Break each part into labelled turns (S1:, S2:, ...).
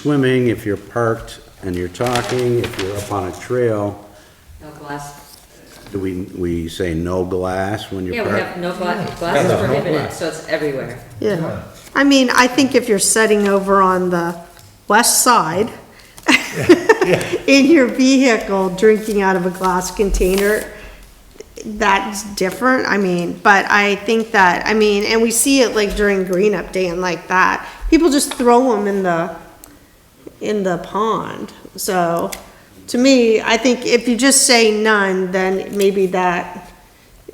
S1: swimming, if you're parked and you're talking, if you're up on a trail,
S2: No glass.
S1: do we, we say no glass when
S2: Yeah,
S1: you're
S2: we have
S1: parked?
S2: no glass, glass is
S3: Yeah, no
S2: prohibited,
S3: glass.
S2: so it's everywhere.
S4: Yeah, I mean, I think if you're sitting over on the west side in your vehicle, drinking out of a glass container, that's different, I mean, but I think that, I mean, and we see it like during green up day and like that, people just throw them in the, in the pond, so, to me, I think if you just say none, then maybe that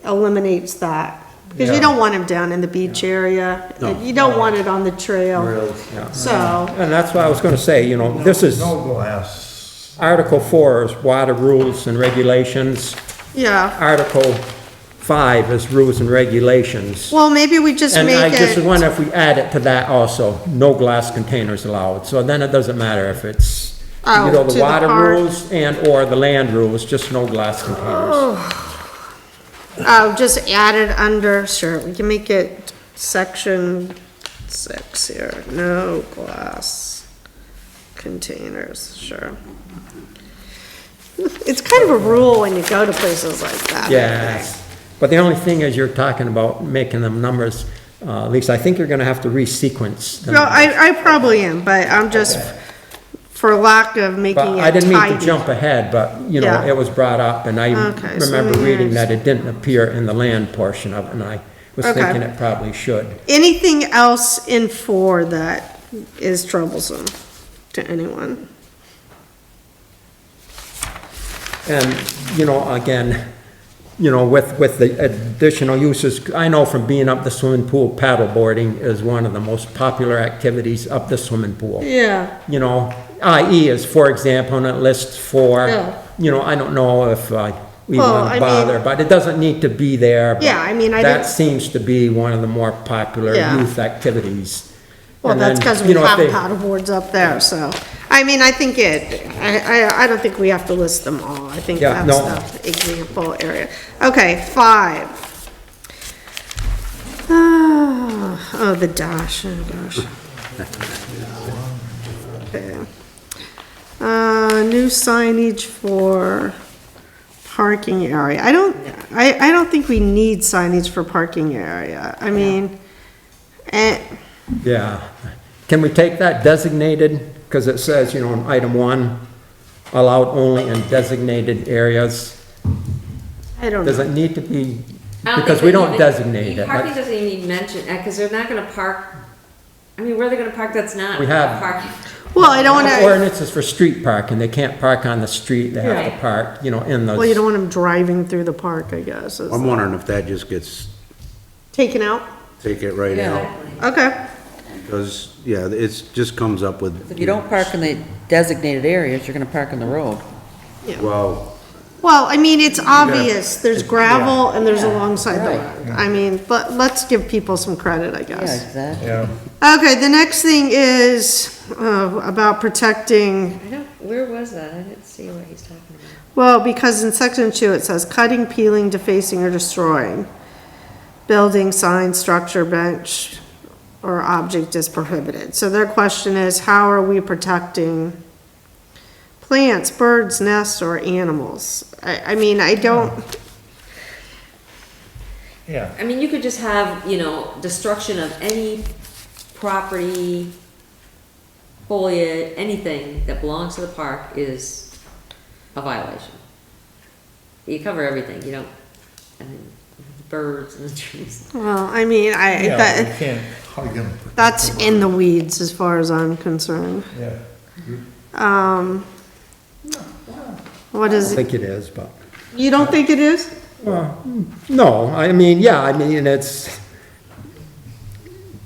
S4: eliminates that, because you
S3: Yeah.
S4: don't want them down in the beach area,
S1: No.
S4: you don't want it on the trail,
S3: Rails, yeah.
S4: so,
S3: And that's what I was gonna say, you know, this is,
S5: No glass.
S3: Article four is water rules and regulations.
S4: yeah.
S3: Article five is rules and regulations.
S4: Well, maybe we just
S3: And I
S4: make
S3: just
S4: it,
S3: wonder if we add it to that also, no glass containers allowed. So then it doesn't matter if it's,
S4: Oh,
S3: you know,
S4: to
S3: the
S4: the
S3: water
S4: park.
S3: rules and/or the land rules, just no glass containers.
S4: oh, just add it under, sure, we can make it section six here, no glass containers, sure. It's kind of a rule when you go to places like that. I think.
S3: Yes. But the only thing is you're talking about making them numbers, uh, Lisa, I think you're gonna have to resequence. the
S4: No,
S3: numbers.
S4: I, I probably am, but I'm just, for lack of making
S3: But I
S4: it
S3: didn't mean to
S4: tidy.
S3: jump ahead, but, you know,
S4: Yeah.
S3: it was brought up, and I
S4: Okay, so
S3: remember
S4: maybe
S3: reading
S4: there's-
S3: that it didn't appear in the land portion of it, and I was
S4: Okay.
S3: thinking it probably should.
S4: Anything else in four that is troublesome to anyone?
S3: And, you know, again, you know, with, with the additional uses, I know from being up the swimming pool, paddleboarding is one of the most popular activities up the swimming pool.
S4: Yeah.
S3: you know, IE is, for example, and it lists four.
S4: Yeah.
S3: You know, I don't know if uh, we
S4: Well,
S3: want
S4: I mean-
S3: to bother, but it doesn't need to be there. but
S4: Yeah, I mean, I
S3: That
S4: don't-
S3: seems to be one of the more popular
S4: Yeah.
S3: youth activities.
S4: Well,
S3: And
S4: that's
S3: then,
S4: because
S3: you
S4: we
S3: know, if
S4: have
S3: they-
S4: paddleboards up there, so, I mean, I think it, I, I, I don't think we have to list them all, I think
S3: Yeah,
S4: that's
S3: no.
S4: the example area. Okay, five. Ah, Oh, the dash, oh gosh. Okay. Uh, new signage for parking area, I don't, I, I don't think we need signage for parking area, I mean, eh,
S3: Yeah. Can we take that designated? Because it says, you know, in item one, allowed only in designated areas.
S4: I don't
S3: Does
S4: know.
S3: it need to be?
S2: I
S3: Because
S2: think
S3: we
S2: that
S3: don't
S2: even-
S3: designate it.
S2: Parking doesn't even need mention, because they're not gonna park, I mean, where are they gonna park that's not
S3: We have-
S2: parking?
S4: Well, I don't
S3: The
S4: wanna,
S3: Ordinance is for street parking. They can't park on the street. They have to
S2: Right.
S3: park, you know, in the.
S4: well, you don't want them driving through the park, I guess, is
S1: I'm wondering if that just gets,
S4: taken out,
S1: take it right out,
S2: Exactly.
S4: okay.
S1: because, yeah, it's, just comes up with.
S6: If you don't park in the designated areas, you're gonna park in the road.
S1: Well,
S4: Well, I mean, it's obvious, there's gravel and there's alongside the road, I mean, but let's give people some credit, I
S6: Yeah,
S4: guess.
S6: exactly.
S5: Yeah.
S4: Okay, the next thing is, uh, about protecting
S2: I don't, where was that? I didn't see what he's talking about.
S4: Well, because in section two, it says cutting, peeling, defacing, or destroying. Building, sign, structure, bench, or object is prohibited. So their question is, how are we protecting plants, birds, nests, or animals? I, I mean, I don't,
S5: Yeah.
S2: I mean, you could just have, you know, destruction of any property, foliage, anything that belongs to the park is a violation. You cover everything, you don't, I mean, birds and the trees.
S4: well, I mean,
S5: Yeah,
S4: I,
S5: you
S4: that,
S5: can't hug them.
S4: that's in the weeds as far as I'm concerned.
S5: Yeah.
S4: Um, what
S3: I
S4: is, it?
S3: think it is, but.
S4: you don't think it is?
S3: No, I mean, yeah, I mean, it's,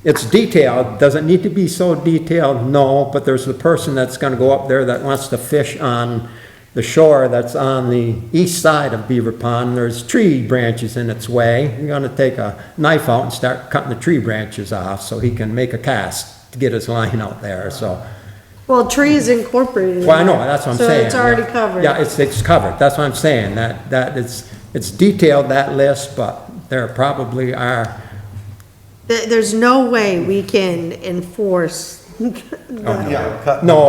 S3: it's detailed, does it need to be so detailed? No, but there's the person that's gonna go up there that wants to fish on the shore that's on the east side of Beaver Pond, there's tree branches in its way, you're gonna take a knife out and start cutting the tree branches off so he can make a cast to get his line out there, so.
S4: Well, tree is incorporated. in
S3: Well, I know,
S4: there,
S3: that's what I'm saying.
S4: So it's already
S3: yeah.
S4: covered.
S3: Yeah, it's, it's covered, that's what I'm saying, that, that, it's, it's detailed, that list, but there probably are,
S4: There- There's no way we can enforce
S3: Oh, no.
S4: Yeah, cut.
S3: No,